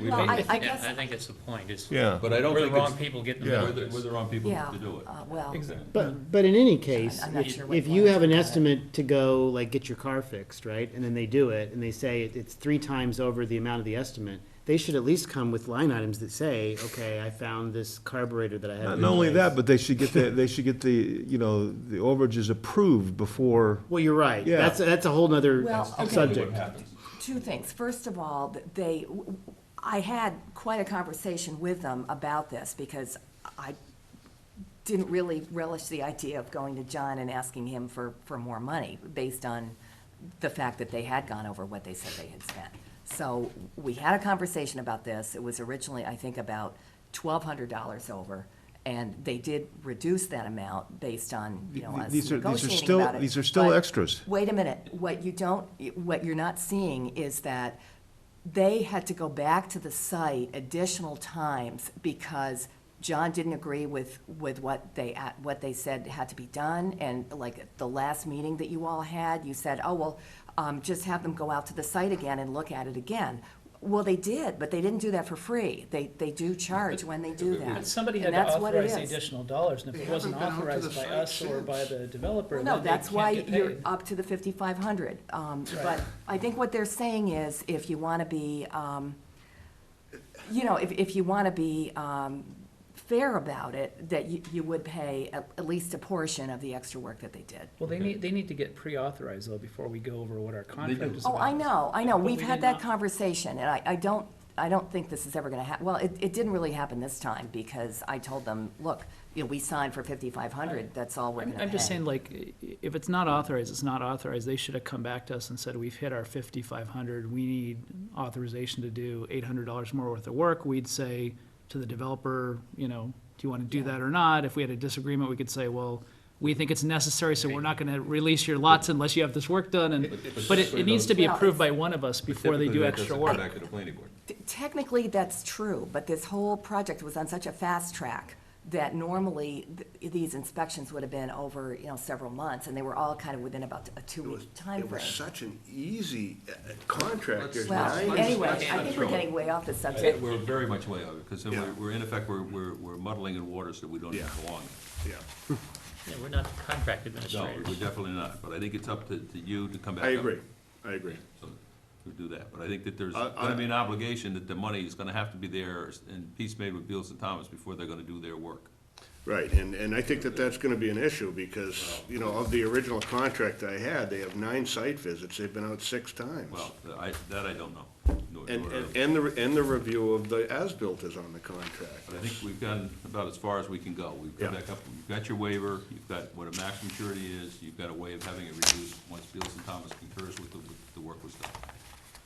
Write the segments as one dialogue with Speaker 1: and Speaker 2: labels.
Speaker 1: We
Speaker 2: Well,
Speaker 1: don't-
Speaker 2: I- I
Speaker 3: Yeah,
Speaker 2: guess-
Speaker 3: I think it's the point, is.
Speaker 4: Yeah.
Speaker 1: But I don't
Speaker 3: We're the
Speaker 1: think it's-
Speaker 3: wrong people getting
Speaker 4: Yeah.
Speaker 3: the
Speaker 1: We're the, we're the wrong people
Speaker 2: Yeah,
Speaker 1: to do it.
Speaker 2: uh, well,
Speaker 1: Exactly.
Speaker 5: But, but in any case,
Speaker 2: I'm not
Speaker 5: if
Speaker 2: sure what
Speaker 5: if
Speaker 2: you
Speaker 5: you
Speaker 2: want
Speaker 5: have an
Speaker 2: to do.
Speaker 5: estimate to go, like, get your car fixed, right? And then they do it, and they say it- it's three times over the amount of the estimate, they should at least come with line items that say, okay, I found this carburetor that I had.
Speaker 4: Not only that, but they should get the, they should get the, you know, the overages approved before,
Speaker 5: Well, you're right.
Speaker 4: Yeah.
Speaker 5: That's, that's a whole nother
Speaker 2: Well, okay.
Speaker 5: subject.
Speaker 2: two things. First of all, th- they, I had quite a conversation with them about this because I didn't really relish the idea of going to John and asking him for, for more money based on the fact that they had gone over what they said they had spent. So we had a conversation about this. It was originally, I think, about twelve hundred dollars over. And they did reduce that amount based on, you know, us
Speaker 4: These are- these are
Speaker 2: negotiating
Speaker 4: still-
Speaker 2: about it.
Speaker 4: these are still
Speaker 2: But-
Speaker 4: extras.
Speaker 2: Wait a minute, what you don't, what you're not seeing is that they had to go back to the site additional times because John didn't agree with, with what they, a- what they said had to be done, and like at the last meeting that you all had, you said, oh, well, um, just have them go out to the site again and look at it again. Well, they did, but they didn't do that for free. They, they do charge when they do that.
Speaker 6: But somebody had
Speaker 2: And
Speaker 6: to
Speaker 2: that's what it
Speaker 6: authorize the
Speaker 2: is.
Speaker 6: additional dollars, and if it wasn't
Speaker 7: haven't been out to the
Speaker 6: authorized by
Speaker 7: site
Speaker 6: us or by
Speaker 7: since.
Speaker 6: the developer,
Speaker 2: Well,
Speaker 6: then
Speaker 2: No,
Speaker 6: they
Speaker 2: that's
Speaker 6: can't
Speaker 2: why
Speaker 6: get
Speaker 2: you're
Speaker 6: paid.
Speaker 2: up to the fifty-five hundred. Um,
Speaker 6: Right.
Speaker 2: but I think what they're saying is, if you wanna be, um, you know, if, if you wanna be, um, fair about it, that you, you would pay at, at least a portion of the extra work that they did.
Speaker 6: Well, they need, they need to get pre-authorized though, before we go over what our contract
Speaker 1: do.
Speaker 6: is
Speaker 2: Oh,
Speaker 6: about.
Speaker 2: I know, I know.
Speaker 6: But
Speaker 2: We've
Speaker 6: we
Speaker 2: had
Speaker 6: did
Speaker 2: that
Speaker 6: not.
Speaker 2: conversation, and I, I don't, I don't think this is ever gonna hap, well, it, it didn't really happen this time, because I told them, look, you know, we signed for fifty-five hundred, that's all we're
Speaker 6: I'm,
Speaker 2: gonna pay.
Speaker 6: I'm just saying, like, i- if it's not authorized, it's not authorized, they should have come back to us and said, we've hit our fifty-five hundred, we need authorization to do eight hundred dollars more worth of work, we'd say to the developer, you know, do you wanna do that or not? If we had a disagreement, we could say, well, we think it's necessary, so we're not gonna release your lots unless you have this work done, and, but it, it needs to be
Speaker 2: Well,
Speaker 6: approved by one of us before they do extra work.
Speaker 1: Back to the planning board.
Speaker 2: T- Technically, that's true, but this whole project was on such a fast track that normally th- these inspections would have been over, you know, several months, and they were all kind of within about a
Speaker 7: It was,
Speaker 2: two-week
Speaker 7: it was
Speaker 2: timeframe.
Speaker 7: such an easy uh, contract, there's
Speaker 2: Well,
Speaker 7: nine-
Speaker 2: anyway,
Speaker 1: let's-
Speaker 2: I think we're
Speaker 1: let's-
Speaker 2: getting way off the
Speaker 1: It-
Speaker 2: subject.
Speaker 1: We're very much way over, because
Speaker 7: Yeah.
Speaker 1: we're, we're in effect, we're, we're we're muddling in waters that we don't even
Speaker 7: Yeah.
Speaker 1: belong. in.
Speaker 7: Yeah,
Speaker 3: Yeah, we're not the contract
Speaker 1: No, we're
Speaker 3: administrators.
Speaker 1: definitely not, but I think it's up to, to you to come back
Speaker 7: I
Speaker 1: up.
Speaker 7: agree, I agree.
Speaker 1: So, To do that, but I think that there's
Speaker 7: I- I-
Speaker 1: gonna be an obligation that the money is gonna have to be there and piece made with Beals and Thomas before they're gonna do their work.
Speaker 7: Right, and, and I think that that's gonna be an issue, because, you know, of the original contract I had, they have nine site visits, they've been out six times.
Speaker 1: Well, I, that I don't know. nor-
Speaker 7: And,
Speaker 1: nor-
Speaker 7: and, and the, and the review of the as-built is on the contract.
Speaker 1: But I think we've gone about as far as we can go. We've come
Speaker 7: Yeah.
Speaker 1: back up, you've got your waiver, you've got what a max maturity is, you've got a way of having it reduced once Beals and Thomas concurs with the, with the work was done.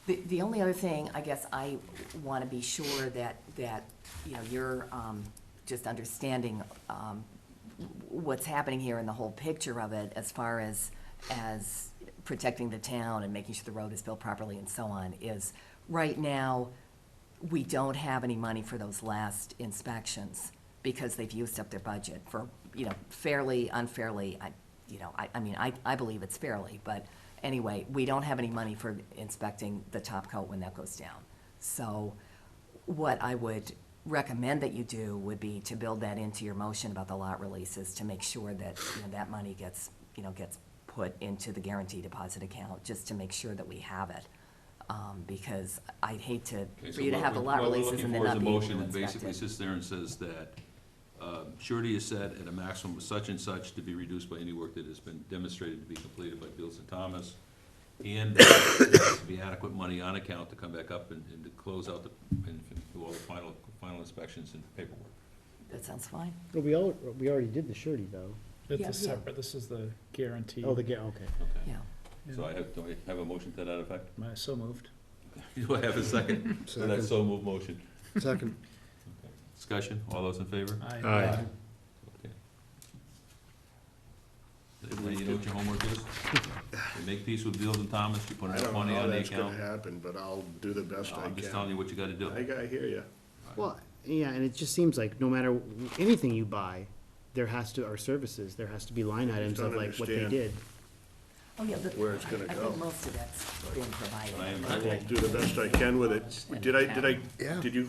Speaker 2: The, the only other thing, I guess I want to be sure that, that, you know, you're um, just understanding um, what's happening here and the whole picture of it as far as, as protecting the town and making sure the road is built properly and so on, is right now, we don't have any money for those last inspections because they've used up their budget for, you know, fairly, unfairly, I, you know, I, I mean, I, I believe it's fairly, but anyway, we don't have any money for inspecting the top coat when that goes down. So what I would recommend that you do would be to build that into your motion about the lot releases to make sure that, you know, that money gets, you know, gets put into the guarantee deposit account, just to make sure that we have it. Um, because I'd hate to,
Speaker 1: Okay, so
Speaker 2: for you to
Speaker 1: what
Speaker 2: have the
Speaker 1: we're-
Speaker 2: lot
Speaker 1: what we're
Speaker 2: releases
Speaker 1: looking
Speaker 2: and then
Speaker 1: for is
Speaker 2: not
Speaker 1: a
Speaker 2: be able
Speaker 1: motion
Speaker 2: to
Speaker 1: that
Speaker 2: inspect
Speaker 1: Basically
Speaker 2: it.
Speaker 1: sits there and says that, uh, surety is set at a maximum of such and such to be reduced by any work that has been demonstrated to be completed by Beals and Thomas. And there has to be adequate money on account to come back up and, and to close out the, and do all the final, final inspections and paperwork.
Speaker 2: That sounds fine.
Speaker 5: But we all, we already did the surety, though.
Speaker 2: Yeah,
Speaker 6: It's
Speaker 2: yeah.
Speaker 6: a separate, this is the guarantee.
Speaker 5: Oh, the, ga- okay.
Speaker 1: Okay.
Speaker 2: Yeah.
Speaker 1: So I have, do I have a motion to that effect?
Speaker 6: My- So moved.
Speaker 1: Do I have a second? So that's so move motion.
Speaker 4: Second.
Speaker 1: Discussion, all those in favor?
Speaker 6: Aye.
Speaker 4: Aye.
Speaker 1: Okay. Everybody, you know what your homework is? You Make peace with Beals and Thomas, you put
Speaker 7: I
Speaker 1: enough
Speaker 7: don't
Speaker 1: money
Speaker 7: know how
Speaker 1: on the
Speaker 7: that's gonna
Speaker 1: account.
Speaker 7: happen, but I'll do the best I
Speaker 1: I'm just telling
Speaker 7: can.
Speaker 1: you what you gotta do.
Speaker 7: I, I hear you.
Speaker 5: Well, yeah, and it just seems like no matter w- anything you buy, there has to, or services, there has to be line items
Speaker 7: don't
Speaker 5: of like what they
Speaker 7: understand.
Speaker 5: did.
Speaker 2: Oh, yeah, but
Speaker 7: where it's gonna
Speaker 2: I
Speaker 7: go.
Speaker 2: think most of that's been provided.
Speaker 1: I am-
Speaker 7: I will do the best I can with it. Did I, did I, did you